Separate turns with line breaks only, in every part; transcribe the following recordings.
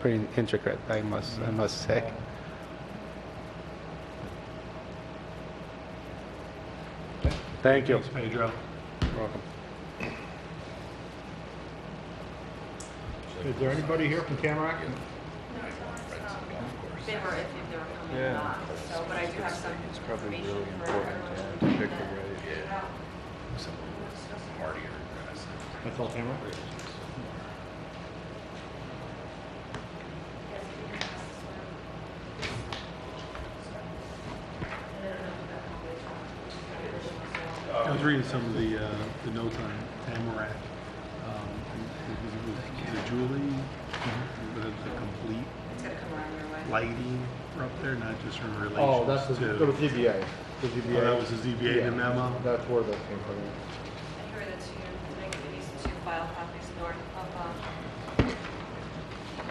pretty intricate, I must, I must say. Thank you.
Thanks, Pedro.
You're welcome.
Is there anybody here from Tamarack?
They were, if they were coming or
Yeah.
not, so, but I do have some
It's probably really
information for
important
everyone.
to have to pick a way.
That's all Tamarack? I was reading some of the, uh, the notes on Tamarack. Um, it was- was it Julie, but it's a complete
It's gonna come around your way.
lighting for up there, not just in relation to.
Oh, that's the, the ZBA. The ZBA.
Oh, that was the ZBA
Yeah,
memo?
That's where that came from.
I heard that you make at least two file copies north of, um,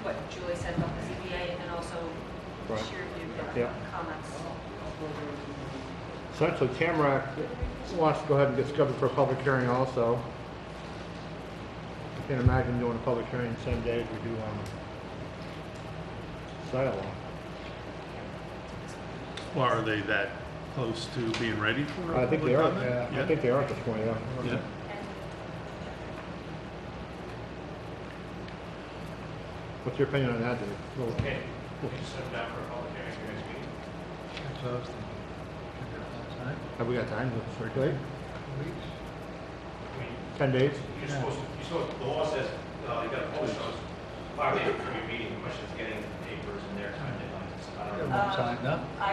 what Julie said about the ZBA and then also
Right.
she reviewed the
Yeah.
uh, comments.
Essentially, Tamarack wants to go ahead and get scheduled for a public hearing also. Can't imagine doing a public hearing the same day as we do on site law.
Well, Are they that close to being ready for
I
a public
think they are,
comment?
yeah, I think they are at this point, yeah.
Yeah.
What's your opinion on that, Dave? Well,
Okay, we can set it down for a public hearing for next meeting.
Have we got time to circulate?
I mean,
Ten days?
you're supposed to, you're supposed, the law says, uh, you gotta post those five days from your meeting, much as getting papers and their time deadlines and stuff. I don't know.
Um, I,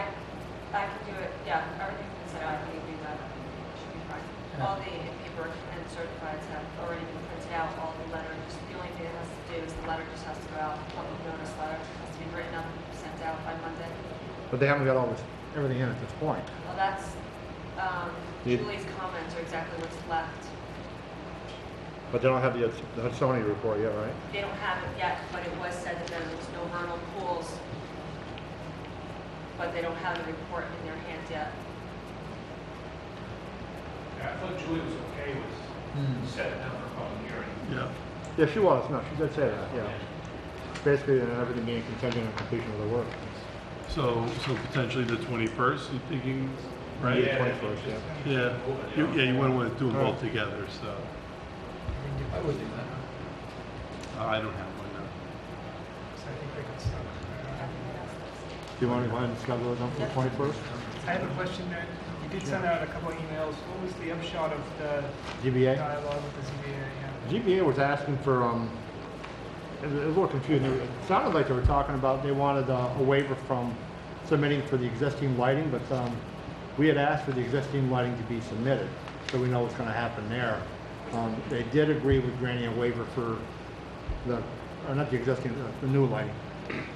I can do it, yeah, everything's been set out, I can do that, should be fine. All the paper and certificates have already been printed out, all the letters, the only thing it has to do is the letter just has to go out, public notice letter, has to be written up, sent out by Monday.
But they haven't got all this, everything in at this point.
Well, that's, um,
You-
Julie's comments are exactly what's left.
But they don't have the the Sony report yet, right?
They don't have it yet, but it was said that there was no vernal pools, but they don't have the report in their hands yet.
I thought Julie was okay with setting it down for a public hearing.
Yeah.
Yeah, she was, no, she did say that, yeah. Basically, and everything being contingent on completion of the work.
So, so potentially the 21st, you thinking, right?
Yeah,
Yeah,
21st, yeah.
Yeah, You- yeah, you wouldn't want to do them both together, so.
I would do that.
Uh, I don't have one now.
I think they could stop.
Do you want to go ahead and schedule it on for the twenty-first?
I have a question, Mary. You did send out a couple of emails. What was the upshot of the
GBA?
dialogue with the ZBA? Yeah.
GBA was asking for, um, it was it was a little confusing. It sounded like they were talking about, they wanted uh, a waiver from submitting for the existing lighting, but, um, we had asked for the existing lighting to be submitted, so we know what's gonna happen there. Um, they did agree with granting a waiver for the, or not the existing, uh, the new lighting.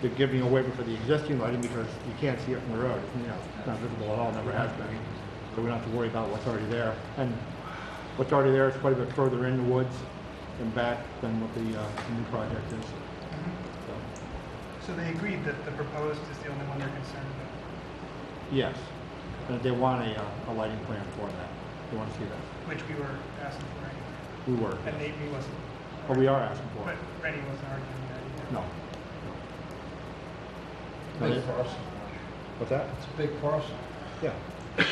They're giving a waiver for the existing lighting because you can't see it from the road. You know, it's not visible at all, never has been. So we don't have to worry about what's already there. And what's already there is quite a bit further in the woods and back than what the, uh, the new project is. So,
So they agreed that the proposed is the only one they're concerned about,
Yes, and they want a, uh, a lighting plan for that. They want to see that.
which we were asking for anyway.
We were,
And Nate wasn't,
or we are asking for
but
it.
Rennie wasn't arguing that
No.
either.
No.
Big parcel.
What's that?
It's a big parcel.
Yeah. Yeah,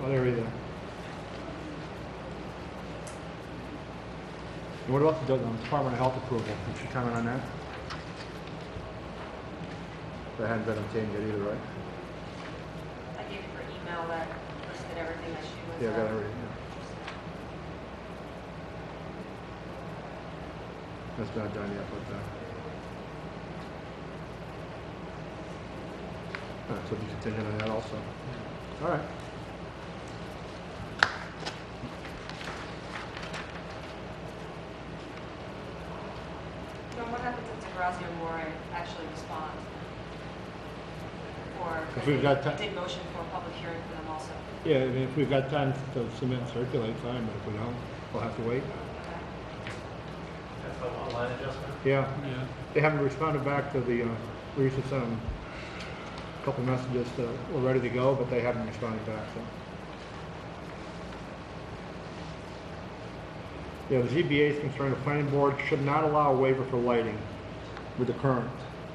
Well, there we go. And what about the um, Department of Health approval? Did you comment on that? That hadn't been obtained yet either, right?
I gave her email that listed everything that she was.
Yeah, I got
uh,
it already, yeah. That's not done yet, but, uh. All right, so we continue on that also. All right.
Now, what happens if DeGrazia Moore actually responds? Or
If we've got ti-
did motion for a public hearing for them also?
Yeah, I mean, if we've got time to submit and circulate, fine, but if we don't, we'll have to wait.
That's the online adjustment.
Yeah,
Yeah.
they haven't responded back to the, uh, we used to send them a couple messages that we're ready to go, but they haven't responded back, so. Yeah, the ZBA's concerned the planning board should not allow a waiver for lighting with the current